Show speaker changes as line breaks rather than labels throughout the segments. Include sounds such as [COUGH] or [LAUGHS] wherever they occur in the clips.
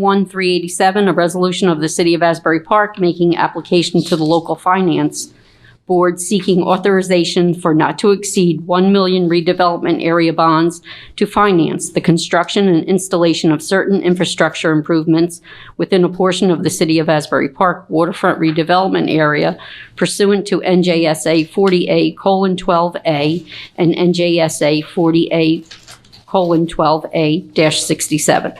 21-387, a resolution of the City of Asbury Park making application to the local finance board seeking authorization for not to exceed 1 million redevelopment area bonds to finance the construction and installation of certain infrastructure improvements within a portion of the City of Asbury Park waterfront redevelopment area pursuant to NJSA 40A:12A and NJSA 40A:12A-67.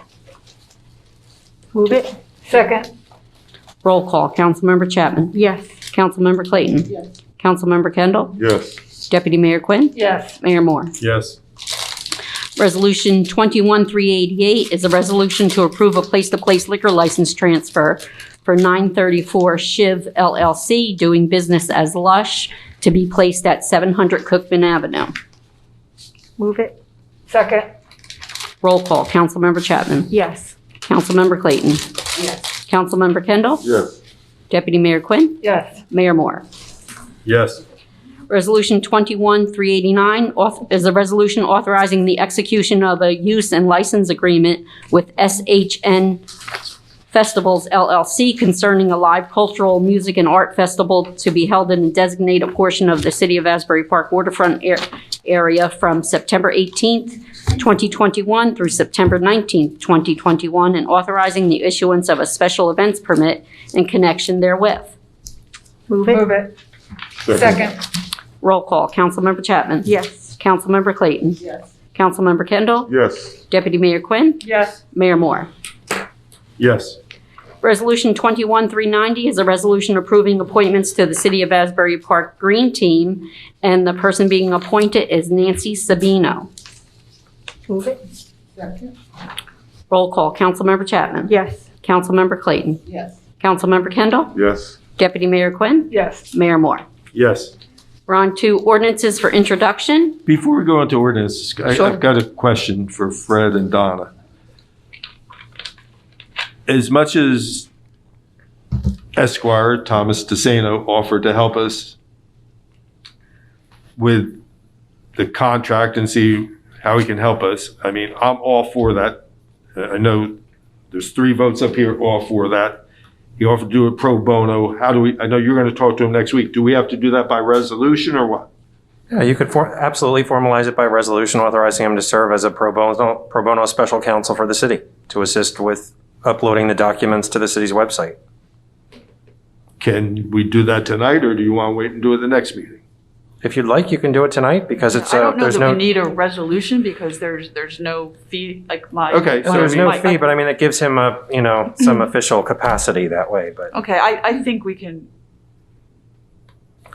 Move it. Second.
Roll call, Councilmember Chapman.
Yes.
Councilmember Clayton. Yes. Councilmember Kendall.
Yes.
Deputy Mayor Quinn.
Yes.
Mayor Moore.
Yes.
Resolution 21388 is a resolution to approve a place-to-place liquor license transfer for 934 Shiv LLC, doing business as Lush, to be placed at 700 Cookman Avenue.
Move it. Second.
Roll call, Councilmember Chapman.
Yes.
Councilmember Clayton.
Yes.
Councilmember Kendall.
Yes.
Deputy Mayor Quinn.
Yes.
Mayor Moore.
Yes.
Resolution 21-389 auth- is a resolution authorizing the execution of a use and license agreement with SHN Festivals LLC concerning a live cultural, music, and art festival to be held in a designated portion of the City of Asbury Park waterfront ar- area from September 18th, 2021 through September 19th, 2021, and authorizing the issuance of a special events permit in connection therewith.
Move it. Move it. Second.
Roll call, Councilmember Chapman.
Yes.
Councilmember Clayton.
Yes.
Councilmember Kendall.
Yes.
Deputy Mayor Quinn.
Yes.
Mayor Moore.
Yes.
Resolution 21390 is a resolution approving appointments to the City of Asbury Park Green Team, and the person being appointed is Nancy Sabino.
Move it. Second.
Roll call, Councilmember Chapman.
Yes.
Councilmember Clayton.
Yes.
Councilmember Kendall.
Yes.
Deputy Mayor Quinn.
Yes.
Mayor Moore.
Yes.
We're on to ordinances for introduction.
Before we go into ordinances, I-
Sure.
I've got a question for Fred and Donna. As much as Esquire Thomas DeSano offered to help us with the contract and see how he can help us, I mean, I'm all for that. I I know there's three votes up here, all for that. He offered to do it pro bono. How do we, I know you're going to talk to him next week. Do we have to do that by resolution or what?
Yeah, you could for- absolutely formalize it by resolution authorizing him to serve as a pro bono, pro bono special counsel for the city to assist with uploading the documents to the city's website.
Can we do that tonight, or do you want to wait and do it the next meeting?
If you'd like, you can do it tonight because it's,
I
uh,
don't know
there's
that
no,
we need a resolution because there's, there's no fee, like my.
Okay, so
well,
I
there's no
mean,
Mike,
fee,
I-
but I mean, it gives him a, you know,
[LAUGHS]
some official capacity that way, but
Okay, I, I think we can,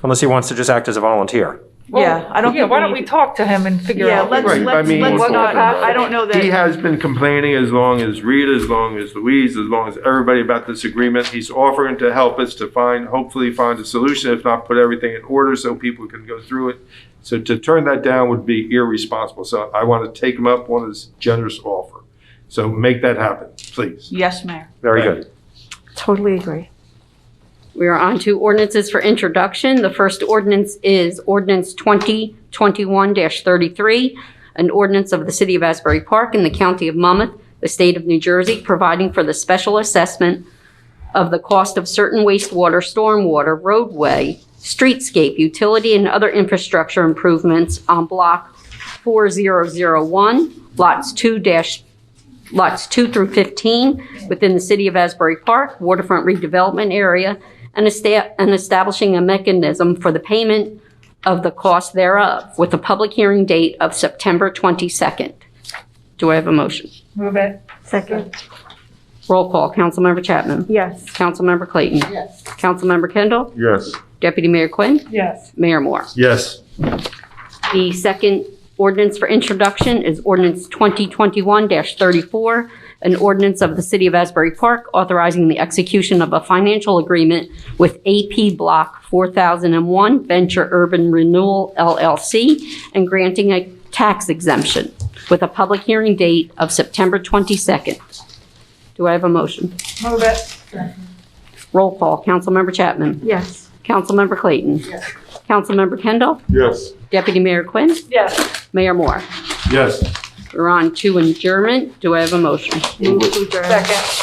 unless he wants to just act as a volunteer.
yeah, I don't
Yeah,
think
why don't we
we need.
talk to him and figure
Yeah,
out?
let's,
Right, I
let's,
mean-
let's
We'll
not,
talk about
I I don't know
he
that,
has been complaining as long as Rita, as long as Louise, as long as everybody about this agreement. He's offering to help us to find, hopefully find a solution, if not put everything in order so people can go through it. So to turn that down would be irresponsible. So I want to take him up on his generous offer. So make that happen, please.
yes, Mayor.
Very
Right.
good.
Totally agree.
We are on to ordinances for introduction. The first ordinance is ordinance 2021-33, an ordinance of the City of Asbury Park and the County of Monmouth, the State of New Jersey, providing for the special assessment of the cost of certain wastewater, stormwater, roadway, streetscape, utility, and other infrastructure improvements on Block 4001, Lots 2 dash lots 2 through 15 within the City of Asbury Park waterfront redevelopment area and esta- and establishing a mechanism for the payment of the cost thereof with a public hearing date of September 22nd. Do I have a motion?
Move it. Second.
Roll call, Councilmember Chapman.
Yes.
Councilmember Clayton.
Yes.
Councilmember Kendall.
Yes.
Deputy Mayor Quinn.
Yes.
Mayor Moore.
Yes.
The second ordinance for introduction is ordinance 2021-34, an ordinance of the City of Asbury Park authorizing the execution of a financial agreement with AP Block 4001 Venture Urban Renewal LLC and granting a tax exemption with a public hearing date of September 22nd. Do I have a motion?
Move it.
Roll call. Councilmember Chapman.
Yes.
Councilmember Clayton. Councilmember Kendall.
Yes.
Deputy Mayor Quinn.
Yes.
Mayor Moore.
Yes.
We're on to adjournment. Do I have a motion?
Second.